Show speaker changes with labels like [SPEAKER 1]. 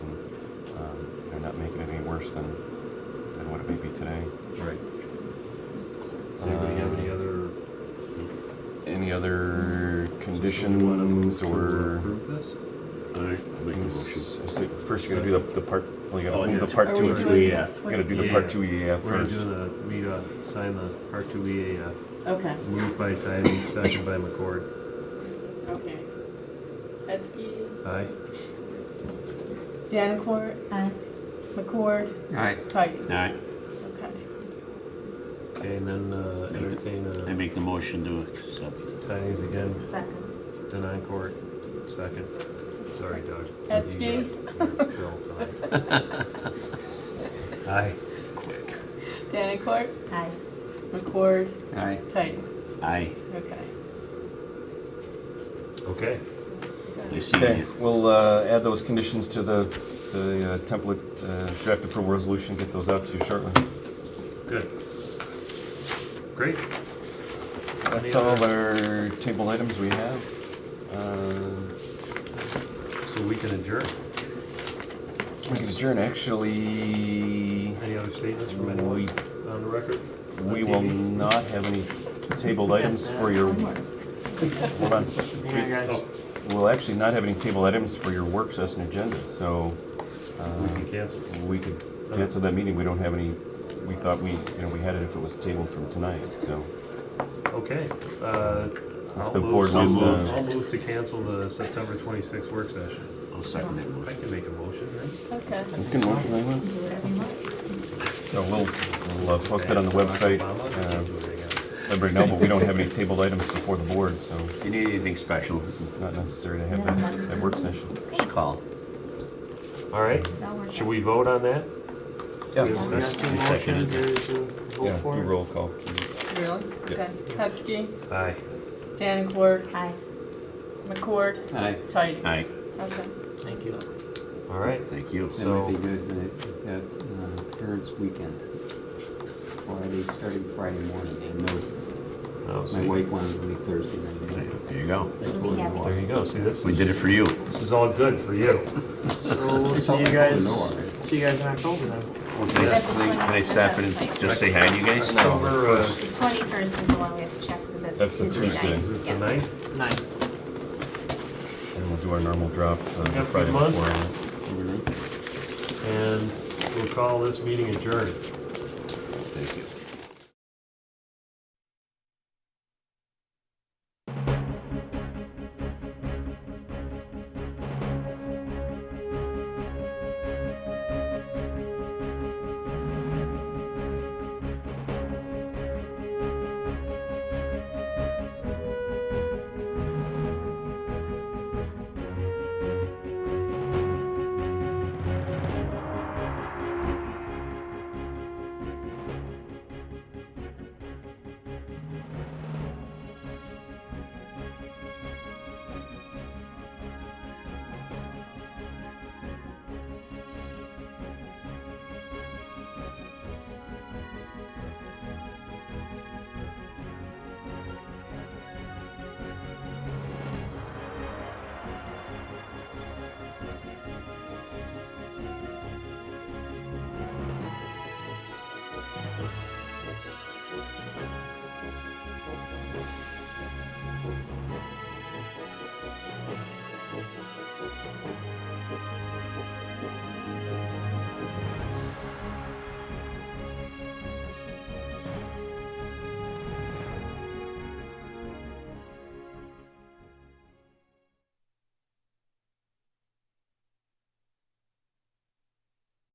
[SPEAKER 1] and not make it any worse than, than what it may be today.
[SPEAKER 2] Right. Does anybody have any
[SPEAKER 1] Uh,
[SPEAKER 2] other?
[SPEAKER 1] Any other
[SPEAKER 2] Somebody wanna move
[SPEAKER 1] conditions
[SPEAKER 2] to
[SPEAKER 1] or?
[SPEAKER 2] Approve this?
[SPEAKER 3] All right, make a motion.
[SPEAKER 1] things? It's like, First, you're gonna do the, the part, well, you
[SPEAKER 3] Oh,
[SPEAKER 1] gotta move
[SPEAKER 3] yeah.
[SPEAKER 1] the part
[SPEAKER 4] Are
[SPEAKER 1] two. E
[SPEAKER 4] we
[SPEAKER 1] and
[SPEAKER 4] doing
[SPEAKER 1] three.
[SPEAKER 3] EAF.
[SPEAKER 1] You gotta do the
[SPEAKER 2] Yeah.
[SPEAKER 1] part two EAF
[SPEAKER 2] E We're
[SPEAKER 1] first.
[SPEAKER 2] doing a, we, uh, sign the R two E A, uh,
[SPEAKER 4] Okay,
[SPEAKER 2] moved by Tyvee, second by McCord.
[SPEAKER 4] okay. Hetzke,
[SPEAKER 2] Aye.
[SPEAKER 4] Danicourt. Aye. McCord,
[SPEAKER 5] Aye.
[SPEAKER 4] Titans.
[SPEAKER 3] All right,
[SPEAKER 4] Okay.
[SPEAKER 2] Okay, and then, uh,
[SPEAKER 3] Make the-
[SPEAKER 2] entertain,
[SPEAKER 3] I
[SPEAKER 2] uh,
[SPEAKER 3] make the motion to accept.
[SPEAKER 2] Tyvee's again,
[SPEAKER 6] Second.
[SPEAKER 2] denying court, second. Sorry, Doug.
[SPEAKER 4] That's
[SPEAKER 2] You-
[SPEAKER 4] me.
[SPEAKER 2] you're Phil tonight. Aye.
[SPEAKER 4] Danicourt,
[SPEAKER 6] Aye.
[SPEAKER 4] McCord,
[SPEAKER 5] Aye.
[SPEAKER 4] Titans.
[SPEAKER 3] Aye,
[SPEAKER 4] Okay.
[SPEAKER 2] Okay.
[SPEAKER 3] I see
[SPEAKER 1] Okay,
[SPEAKER 3] you.
[SPEAKER 1] we'll uh, add those conditions to the, the uh, template uh, draft approval resolution, get those out to you shortly.
[SPEAKER 2] Good. Great.
[SPEAKER 1] That's
[SPEAKER 2] Any
[SPEAKER 1] all of
[SPEAKER 2] other-
[SPEAKER 1] our table items we have. Uh,
[SPEAKER 2] So we can adjourn.
[SPEAKER 1] We can adjourn, actually,
[SPEAKER 2] Any other statements from
[SPEAKER 1] we,
[SPEAKER 2] anyone on the record?
[SPEAKER 1] we
[SPEAKER 2] On
[SPEAKER 1] will
[SPEAKER 2] TV?
[SPEAKER 1] not have any tabled items for your, hold on.
[SPEAKER 5] Hang on, guys.
[SPEAKER 2] Oh,
[SPEAKER 1] We'll actually not have any tabled items for your work session agenda, so
[SPEAKER 2] We
[SPEAKER 1] uh,
[SPEAKER 2] can cancel.
[SPEAKER 1] we could cancel that meeting. We don't have any, we thought we, you know, we had it if it was tabled from tonight, so.
[SPEAKER 2] Okay. uh, I'll
[SPEAKER 1] the
[SPEAKER 2] move,
[SPEAKER 1] board
[SPEAKER 2] I'll
[SPEAKER 3] wants to-
[SPEAKER 2] move I'll move to cancel the September 26th work session.
[SPEAKER 3] I'll second that
[SPEAKER 2] I
[SPEAKER 3] motion.
[SPEAKER 2] can make a motion, right?
[SPEAKER 4] Okay.
[SPEAKER 1] You can work if you want.
[SPEAKER 6] Do whatever you want.
[SPEAKER 1] So we'll, we'll uh, post it on the website, uh,
[SPEAKER 2] Obama?
[SPEAKER 1] let everybody know, but we don't have any tabled items before the board, so
[SPEAKER 3] If you need anything special,
[SPEAKER 1] it's not necessary to have that, that work session.
[SPEAKER 3] just call.
[SPEAKER 2] All right,
[SPEAKER 6] That'll work
[SPEAKER 2] should
[SPEAKER 6] out.
[SPEAKER 2] we vote on that?
[SPEAKER 1] Yes.
[SPEAKER 2] We have
[SPEAKER 3] I second it.
[SPEAKER 1] Yeah, do roll call, please.
[SPEAKER 4] Really?
[SPEAKER 1] Yes.
[SPEAKER 4] Okay. Hetzke,
[SPEAKER 2] Aye.
[SPEAKER 4] Danicourt,
[SPEAKER 6] Aye.
[SPEAKER 4] McCord,
[SPEAKER 5] Aye.
[SPEAKER 4] Titans.
[SPEAKER 3] Aye.
[SPEAKER 4] Okay.
[SPEAKER 5] Thank you.
[SPEAKER 2] All right,
[SPEAKER 3] Thank you.
[SPEAKER 5] That might be good, that, that, uh, parents' weekend. Friday, starting Friday morning, and no,
[SPEAKER 2] Oh,
[SPEAKER 5] my
[SPEAKER 2] see,
[SPEAKER 5] wife wanted to leave Thursday night.
[SPEAKER 3] There you go.
[SPEAKER 5] I told her
[SPEAKER 6] happy.
[SPEAKER 5] why.
[SPEAKER 2] there you go, see, this
[SPEAKER 3] We did it
[SPEAKER 2] is,
[SPEAKER 3] for you.
[SPEAKER 2] this is all good for you.
[SPEAKER 7] So we'll
[SPEAKER 5] It's
[SPEAKER 7] see
[SPEAKER 5] all
[SPEAKER 7] you
[SPEAKER 5] I
[SPEAKER 7] guys.
[SPEAKER 5] know already.
[SPEAKER 7] See you guys in October then.
[SPEAKER 3] Well, Can I- can I- can I stop in and s- just say hi to you guys?
[SPEAKER 2] October, uh,
[SPEAKER 6] The 21st is the one we have to check because
[SPEAKER 1] That's
[SPEAKER 6] that's.
[SPEAKER 1] the Tuesday.
[SPEAKER 6] night.
[SPEAKER 2] is it the
[SPEAKER 6] Yeah.
[SPEAKER 2] ninth?
[SPEAKER 7] Nice.
[SPEAKER 1] And we'll do our normal drop uh,
[SPEAKER 2] Yep,
[SPEAKER 1] Friday
[SPEAKER 2] good month.
[SPEAKER 1] before.
[SPEAKER 5] Overnight.
[SPEAKER 2] And we'll call this meeting adjourned.